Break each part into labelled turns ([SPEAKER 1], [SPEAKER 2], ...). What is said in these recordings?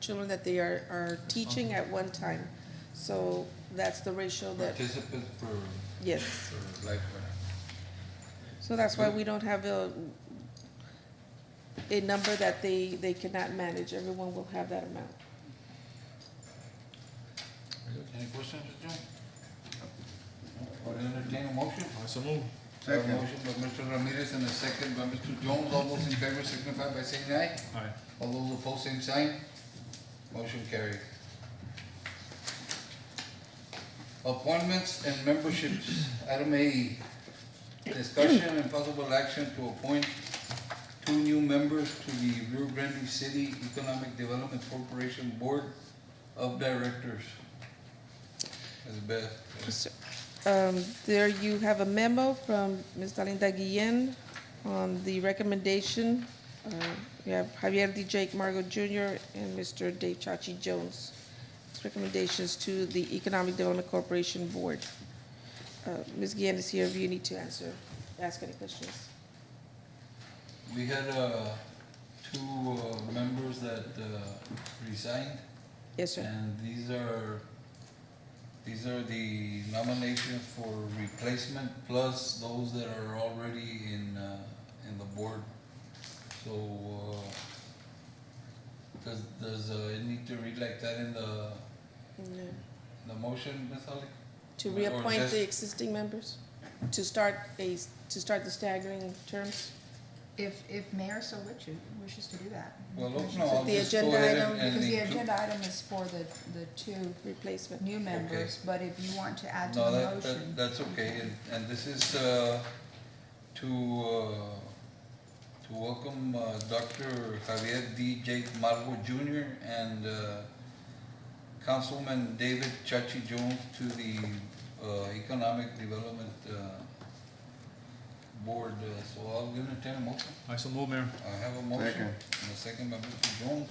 [SPEAKER 1] children that they are, are teaching at one time. So that's the ratio that,
[SPEAKER 2] Participants per,
[SPEAKER 1] yes.
[SPEAKER 2] per lifetime.
[SPEAKER 1] So that's why we don't have a, a number that they, they cannot manage. Everyone will have that amount.
[SPEAKER 2] Any questions, Judge? Or entertain a motion?
[SPEAKER 3] So move.
[SPEAKER 2] Second. Motion by Mr. Ramirez and a second by Mr. Jones. All those in favor signify by saying aye.
[SPEAKER 3] Aye.
[SPEAKER 2] All those opposed, same sign. Motion carried. Appointments and memberships. Item A, discussion and possible action to appoint two new members to the Rio Grande City Economic Development Corporation Board of Directors. Ms. Beth,
[SPEAKER 1] Um, There you have a memo from Ms. Dalinda Guillen on the recommendation. Uh, You have Javier D. Jake Margot Jr. and Mr. Dave Chachi Jones. It's Recommendations to the Economic Development Corporation Board. Uh, Ms. Guillen is here if you need to answer, ask any questions.
[SPEAKER 2] we had, uh, two, uh, members that, uh, resigned.
[SPEAKER 1] Yes, sir.
[SPEAKER 2] And these are, these are the nominations for replacement plus those that are already in, uh, in the board. So, uh, does, does, uh, it need to read like that in the,
[SPEAKER 1] No.
[SPEAKER 2] the motion, Ms. Ali?
[SPEAKER 1] To
[SPEAKER 2] Or
[SPEAKER 1] reappoint
[SPEAKER 2] just-
[SPEAKER 1] the existing members, to start a, to start the staggering terms.
[SPEAKER 4] If, if Mayor so wishes, wishes to do that.
[SPEAKER 2] Well, no,
[SPEAKER 4] Wishes
[SPEAKER 2] no,
[SPEAKER 4] to-
[SPEAKER 2] I'll
[SPEAKER 1] The
[SPEAKER 2] just go
[SPEAKER 1] agenda
[SPEAKER 2] ahead
[SPEAKER 1] item,
[SPEAKER 2] and- and
[SPEAKER 4] Because the
[SPEAKER 2] include-
[SPEAKER 4] agenda item is for the, the two
[SPEAKER 1] Replacement.
[SPEAKER 4] new members, but if you want to add to
[SPEAKER 2] No,
[SPEAKER 4] the
[SPEAKER 2] that,
[SPEAKER 4] motion.
[SPEAKER 2] that, that's okay, and, and this is, uh, to, uh, to welcome, uh, Dr. Javier D. Jake Margo Junior and, uh, Councilman David Chachi Jones to the, uh, Economic Development, uh, Board, Uh, so I'll entertain a motion.
[SPEAKER 3] I so move, Mayor.
[SPEAKER 2] I have a motion, and a second by Mr. Jones.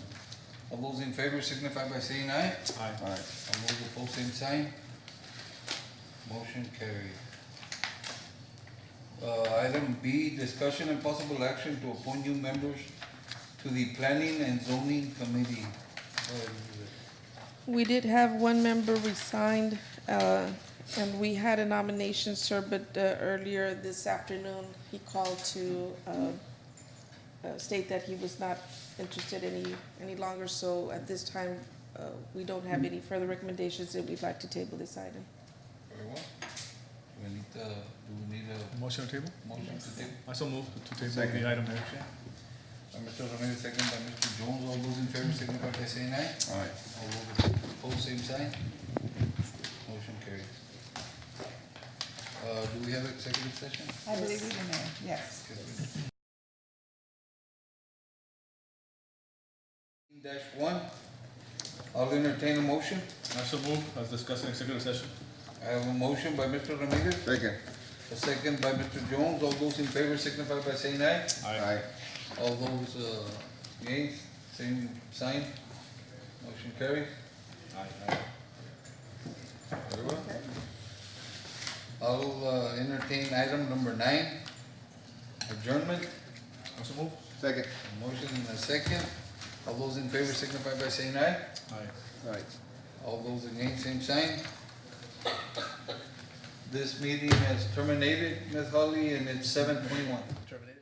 [SPEAKER 2] All those in favor signify by saying aye.
[SPEAKER 3] Aye.
[SPEAKER 5] All right.
[SPEAKER 2] All those opposed, same sign. Motion carried. Uh, item B, discussion and possible action to appoint new members to the planning and zoning committee.
[SPEAKER 1] We did have one member resign, uh, and we had a nomination, sir, but uh, earlier this afternoon, he called to uh, uh, state that he was not interested any, any longer, so at this time, uh, we don't have any further recommendations, and we'd like to table this item.
[SPEAKER 2] Very well. Do we need, uh, do we need a
[SPEAKER 3] Motion to table?
[SPEAKER 2] motion to take?
[SPEAKER 3] I so move to table
[SPEAKER 5] Second.
[SPEAKER 3] the item, Mayor.
[SPEAKER 2] Motion. By Mr. Ramirez, second by Mr. Jones. All those in favor, signify by saying aye.
[SPEAKER 5] All right.
[SPEAKER 2] All those opposed, same sign. Motion carried. Uh, do we have executive session?
[SPEAKER 4] I believe we do, Mayor, yes.
[SPEAKER 2] Dash one, I'll entertain a motion.
[SPEAKER 3] I so move, as discussed in executive session.
[SPEAKER 2] I have a motion by Mr. Ramirez,
[SPEAKER 5] Second.
[SPEAKER 2] a second by Mr. Jones. All those in favor signify by saying aye.
[SPEAKER 5] All right.
[SPEAKER 2] All those, uh, nays, same sign. Motion carries.
[SPEAKER 3] Aye. Aye.
[SPEAKER 2] Very well. I'll, uh, entertain item number nine, adjournment.
[SPEAKER 3] I so move.
[SPEAKER 5] Second.
[SPEAKER 2] A Motion and a second. All those in favor signify by saying aye.
[SPEAKER 3] Aye.
[SPEAKER 5] All right.
[SPEAKER 2] All those against, same sign. This meeting has terminated, Ms. Holly, and it's seven twenty-one.
[SPEAKER 3] Terminated.